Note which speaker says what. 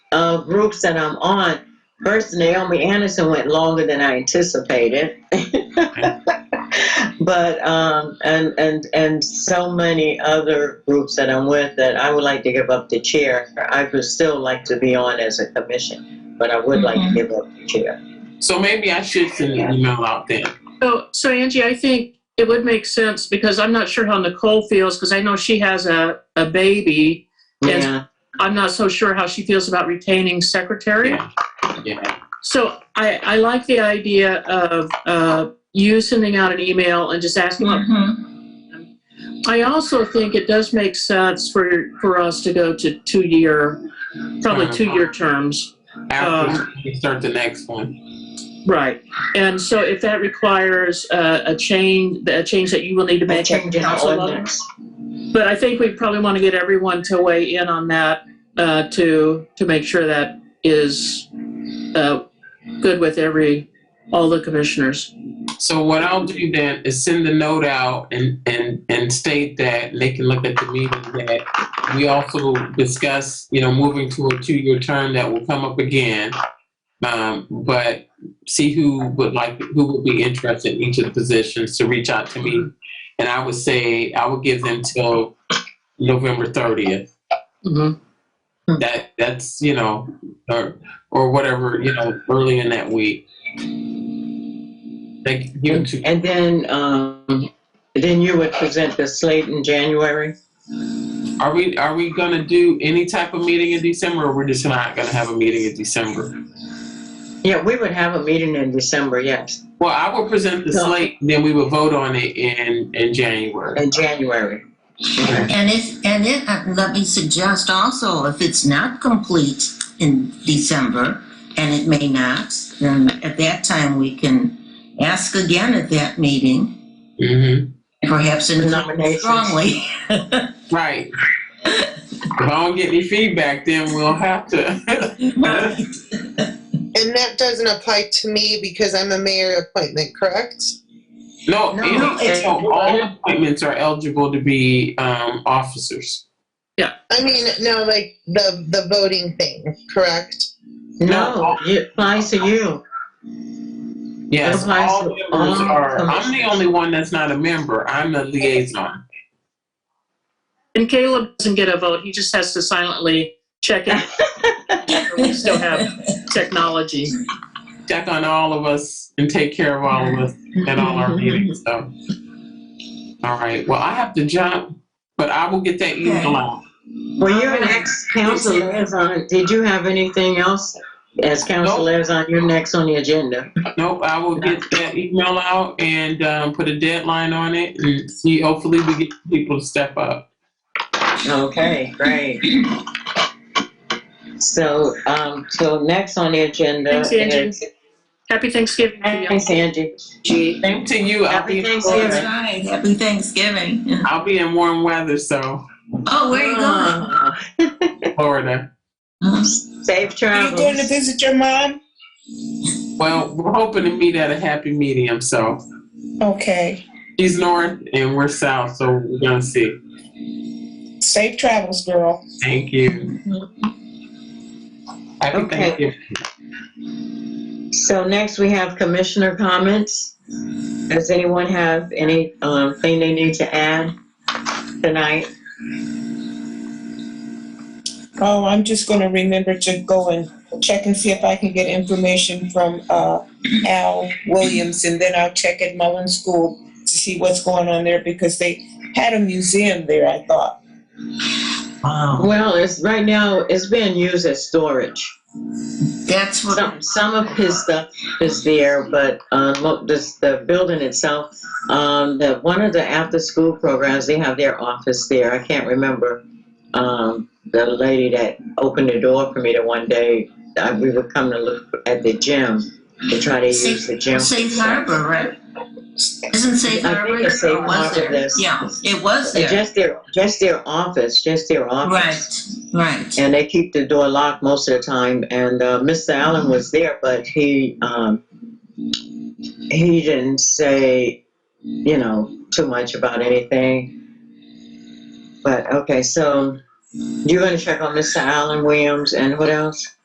Speaker 1: uh, groups that I'm on, first Naomi Anderson went longer than I anticipated. but um, and and and so many other groups that I'm with that I would like to give up the chair. I would still like to be on as a commission, but I would like to give up the chair.
Speaker 2: So maybe I should send an email out then.
Speaker 3: So, so Angie, I think it would make sense because I'm not sure how Nicole feels because I know she has a, a baby. Yes.
Speaker 1: Yeah,
Speaker 3: I'm not so sure how she feels about retaining secretary.
Speaker 2: Yeah. Yeah.
Speaker 3: So I, I like the idea of uh, you sending out an email and just asking.
Speaker 4: Mhm.
Speaker 2: Mm-hmm.
Speaker 3: I also think it does make sense for, for us to go to two year, probably
Speaker 2: Uh-huh.
Speaker 3: two year terms.
Speaker 2: After we start the next one.
Speaker 3: Right. And so if that requires uh, a change, a change that you will need to
Speaker 1: and
Speaker 3: make at
Speaker 1: changing the
Speaker 3: council level.
Speaker 1: ordinance.
Speaker 3: But I think we probably want to get everyone to weigh in on that uh, to to make sure that is uh, good with every all the commissioners.
Speaker 2: So what I'll do then is send the note out and, and, and state that they can look at the meeting that we also discuss, you know, moving to a two-year term that will come up again. Um, but see who would like, who would be interested in each of the positions to reach out to me. And I would say, I would give them till November thirtieth. that that's you know or or whatever you know early in that week they give it to
Speaker 1: And then, um, then you would present the slate in January?
Speaker 2: are we are we gonna do any type of meeting in december or we're just not gonna have a meeting in december
Speaker 1: Yeah, we would have a meeting in December, yes,
Speaker 2: well i will present the
Speaker 1: No.
Speaker 2: slate then we will vote on it in in january
Speaker 1: in January.
Speaker 4: And if, and it, uh, let me suggest also, if it's not complete in December, and it may not, then at that time, we can ask again at that meeting,
Speaker 2: hmm
Speaker 4: perhaps in
Speaker 1: Nominations.
Speaker 4: strongly.
Speaker 2: right if i don't get any feedback then we'll have to
Speaker 5: And that doesn't apply to me because I'm a mayor appointment, correct?
Speaker 2: no,
Speaker 4: No,
Speaker 2: any-
Speaker 4: it's-
Speaker 2: so all appointments are eligible to be um, officers
Speaker 5: I mean, no, like the the voting thing, correct?
Speaker 1: No, it applies to you.
Speaker 2: Yes,
Speaker 1: Applies
Speaker 2: all
Speaker 1: to
Speaker 2: members
Speaker 1: all
Speaker 2: are, I'm the
Speaker 1: commissions.
Speaker 2: only one that's not a member, I'm a liaison.
Speaker 3: And Caleb doesn't get a vote; he just has to silently check it. we still have technology.
Speaker 2: Check on all of us and take care of all of us at all our meetings, so. All right, well, I have to jump, but I will get that email out.
Speaker 1: Well, you're an ex-council liaison, did you have anything else as council
Speaker 2: Nope.
Speaker 1: liaison, you're next on the agenda?
Speaker 2: Nope, I will get that email out and, um, put a deadline on it and see, hopefully we get people to step up.
Speaker 1: Okay, great. So, um, so next on the agenda
Speaker 3: Thanks, Angie.
Speaker 1: is.
Speaker 3: Happy Thanksgiving to
Speaker 1: Thanks, Angie.
Speaker 3: you.
Speaker 2: Same to you, I'll
Speaker 1: Happy
Speaker 2: be, in
Speaker 1: Thanksgiving.
Speaker 2: Florida.
Speaker 4: Right, happy Thanksgiving.
Speaker 2: I'll be in warm weather, so,
Speaker 4: Oh, where you going?
Speaker 1: Ah,
Speaker 2: Florida.
Speaker 1: Uh-huh. Safe travels.
Speaker 5: visit your mom?
Speaker 2: Well, we're hoping to meet at a happy medium, so.
Speaker 5: Okay.
Speaker 2: She's north and we're south, so we're gonna see.
Speaker 5: Safe travels, girl.
Speaker 2: Thank you. Happy
Speaker 1: Okay.
Speaker 2: Thanksgiving.
Speaker 1: So next we have commissioner comments. Does anyone have any um, thing they need to add tonight?
Speaker 6: Oh, I'm just gonna remember to go and check and see if I can get information from, uh, Al Williams, and then I'll check at Mullen School to see what's going on there, because they had a museum there, I thought.
Speaker 1: Well, it's right now, it's being used as storage.
Speaker 4: That's what,
Speaker 1: Some, some of his stuff is there, but um, mo- this, the building itself, um, the, one of the after-school programs, they have their office there. I can't remember. Um, the lady that opened the door for me the one day, I, we would come to look at the gym to try to use the gym.
Speaker 4: Safe Harbor, right? Isn't Safe
Speaker 1: I think
Speaker 4: Harbor,
Speaker 1: it's Safe
Speaker 4: or was
Speaker 1: Harbor,
Speaker 4: there?
Speaker 1: yes.
Speaker 4: Yeah, it was
Speaker 1: Uh,
Speaker 4: there,
Speaker 1: Just their, just their office, just their office.
Speaker 4: right, right.
Speaker 1: And they keep the door locked most of the time. And uh, Mr. Allen was there, but he um, he didn't say, you know, too much about anything. But okay, so you're going to check on Mr. Allen Williams and what else?